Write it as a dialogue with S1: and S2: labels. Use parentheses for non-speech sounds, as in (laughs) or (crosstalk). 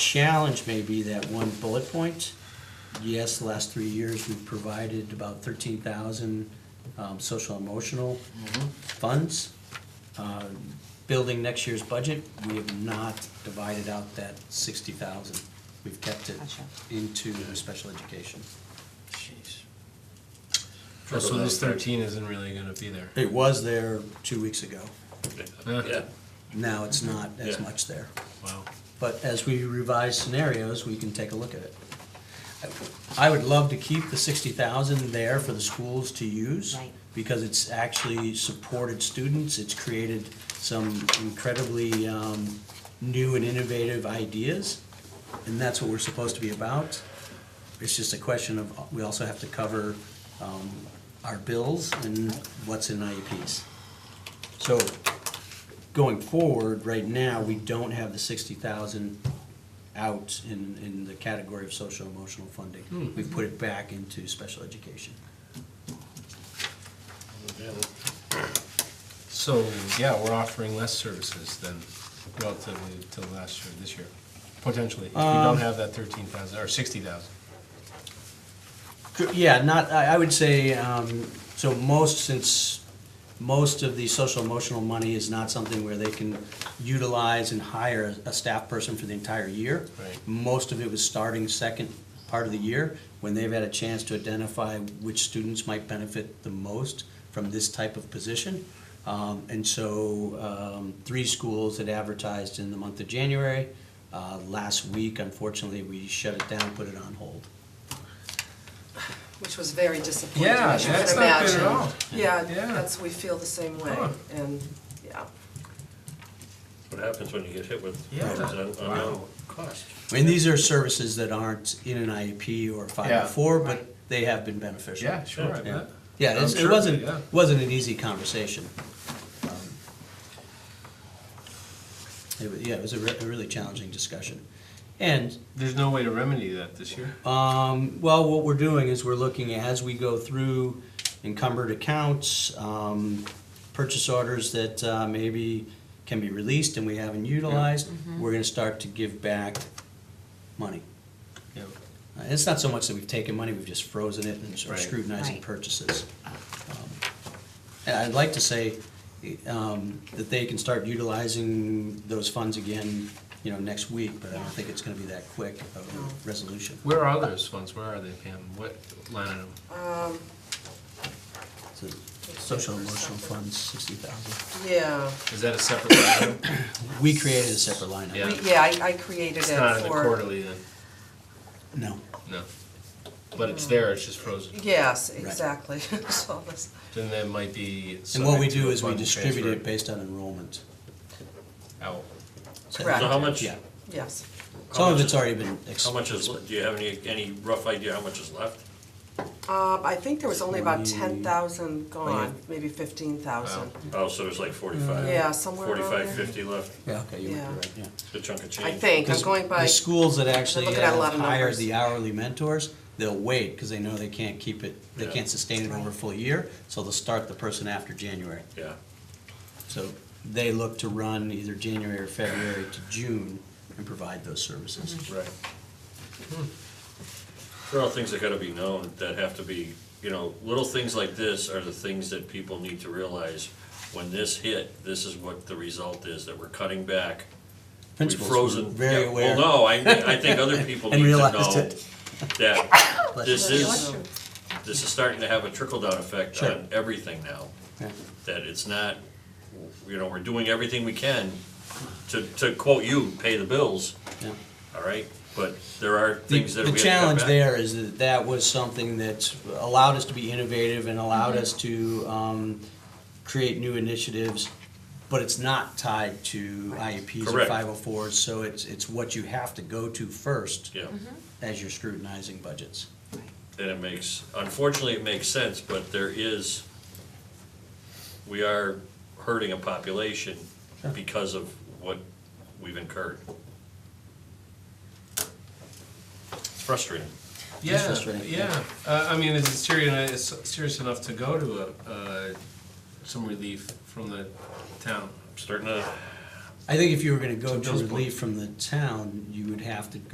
S1: challenge may be that one bullet point. Yes, the last three years, we've provided about thirteen thousand, um, social emotional funds. Uh, Building next year's budget, we have not divided out that sixty thousand. We've kept it
S2: Gotcha.
S1: into special education.
S3: Jeez.
S4: Oh, So this thirteen isn't really gonna be there.
S1: It was there two weeks ago.
S4: Huh?
S3: Yeah,
S1: Now it's not as
S3: Yeah.
S1: much there.
S4: Wow.
S1: But as we revise scenarios, we can take a look at it. I would love to keep the sixty thousand there for the schools to use.
S2: Right.
S1: Because it's actually supported students, it's created some incredibly, um, new and innovative ideas. And that's what we're supposed to be about. It's just a question of, uh, we also have to cover, um, our bills and what's in IEPs. So going forward, right now, we don't have the sixty thousand out in, in the category of social emotional funding. We've put it back into special education.
S4: So, yeah, we're offering less services than relatively to last year, this year, potentially. If we
S1: Um,
S4: don't have that thirteen thousand, or sixty thousand.
S1: Yeah, not, I, I would say, um, so most, since most of the social emotional money is not something where they can utilize and hire a staff person for the entire year.
S4: Right.
S1: Most of it was starting second part of the year, when they've had a chance to identify which students might benefit the most from this type of position. Um, and so, um, three schools that advertised in the month of January, uh, last week, unfortunately, we shut it down, put it on hold.
S5: Which was very disappointing,
S4: Yeah,
S5: as you can
S4: that's not good at
S5: imagine.
S4: all.
S5: Yeah,
S4: Yeah.
S5: that's, we feel the same way,
S4: Huh.
S5: and, yeah.
S3: what happens when you get hit with,
S4: Yeah.
S3: an
S4: Wow.
S3: unknown cost.
S1: I mean, these are services that aren't in an IEP or
S4: Yeah.
S1: 504, but they have been beneficial.
S4: Yeah, sure, I bet.
S1: Yeah, it's-
S4: I'm
S1: it
S4: sure,
S1: wasn't,
S4: yeah.
S1: wasn't an easy conversation. Um, It, wa- yeah, it was a re- a really challenging discussion. And
S4: There's no way to remedy that this year.
S1: um, well, what we're doing is we're looking as we go through encumbered accounts, um, purchase orders that uh, maybe can be released and we haven't utilized. We're gonna start to give back money.
S4: Yeah.
S1: Uh, It's not so much that we've taken money, we've just frozen it and are
S4: Right.
S1: scrutinizing
S2: Right.
S1: purchases. Um, And I'd like to say um, that they can start utilizing those funds again, you know, next week, but I don't think it's gonna be that quick of a resolution.
S4: Where are those funds? Where are they, Pam? What line item?
S5: Um,
S1: So, Social emotional funds, sixty thousand.
S5: Yeah,
S4: Is that a separate line (coughs) item?
S1: We created a separate line
S4: Yeah.
S1: item.
S5: We- yeah, I, I created it
S4: It's
S5: for.
S4: not in the quarterly then,
S1: No,
S4: no. But it's there, it's just frozen.
S5: Yes, exactly, (laughs) so, it's-
S4: Then that might be.
S1: and what we
S4: subject to
S1: do
S4: a
S1: is we
S4: fund
S1: distribute it
S4: transfer
S1: based on enrollment.
S4: Out.
S1: So-
S5: Correct.
S3: So how much,
S1: Yeah,
S5: yes.
S1: some of
S3: much
S1: it's
S3: is-
S1: already been. ex-
S3: how much is, le- do you have any, any rough idea how much is left?
S5: Um, I think there was only about
S1: Forty-
S5: ten thousand gone,
S1: Right.
S5: maybe fifteen thousand.
S3: Oh, so there's like forty-five?
S5: Mm. Yeah, somewhere around
S3: Forty-five,
S5: there.
S3: fifty left,
S1: Yeah, okay, you might
S5: Yeah.
S1: be right, yeah.
S3: a chunk of change.
S5: I think, I'm
S1: Because
S5: going by,
S1: The schools that actually
S5: looking at a lot
S1: have
S5: of
S1: hired
S5: numbers.
S1: the hourly mentors, they'll wait, because they know they can't keep it, they
S3: Yeah.
S1: can't sustain it over a full year, so they'll start the person after January.
S3: Yeah,
S1: So they look to run either January or February to June and provide those services.
S5: Mm-hmm.
S3: right.
S5: Hmm.
S3: There are things that gotta be known, that have to be, you know, little things like this are the things that people need to realize. When this hit, this is what the result is, that we're cutting back. We've
S1: Principals were
S3: frozen.
S1: very
S3: yeah,
S1: aware.
S3: Well, no, I, I
S1: (laughs)
S3: think other people
S1: And
S3: need to
S1: realized
S3: know
S1: it.
S3: that
S1: (coughs) Bless
S3: this
S1: you.
S3: is, this is starting to have a trickle-down effect
S1: Sure.
S3: on everything now.
S1: Yeah.
S3: That it's not, you know, we're doing everything we can to, to quote you, pay the bills,
S1: Yeah.
S3: all right? But there are
S1: The-
S3: things that we have to
S1: The
S3: cut
S1: challenge
S3: back.
S1: there is that that was something that allowed us to be innovative and allowed us to um, create new initiatives, but it's not tied to IEPs or
S3: Correct.
S1: 504s, so it's, it's what you have to go to first
S3: Yeah,
S1: as you're scrutinizing budgets.
S3: and it makes, unfortunately, it makes sense, but there is, we are hurting a population because of what we've incurred. It's frustrating.
S1: It's
S4: Yeah,
S1: frustrating,
S4: yeah. Uh, I mean, is it serious, is serious enough to go to a, uh, some relief from the town?
S3: I'm starting to,
S1: I think if you were gonna go to
S4: Bill's point.
S1: relief from the town, you would have to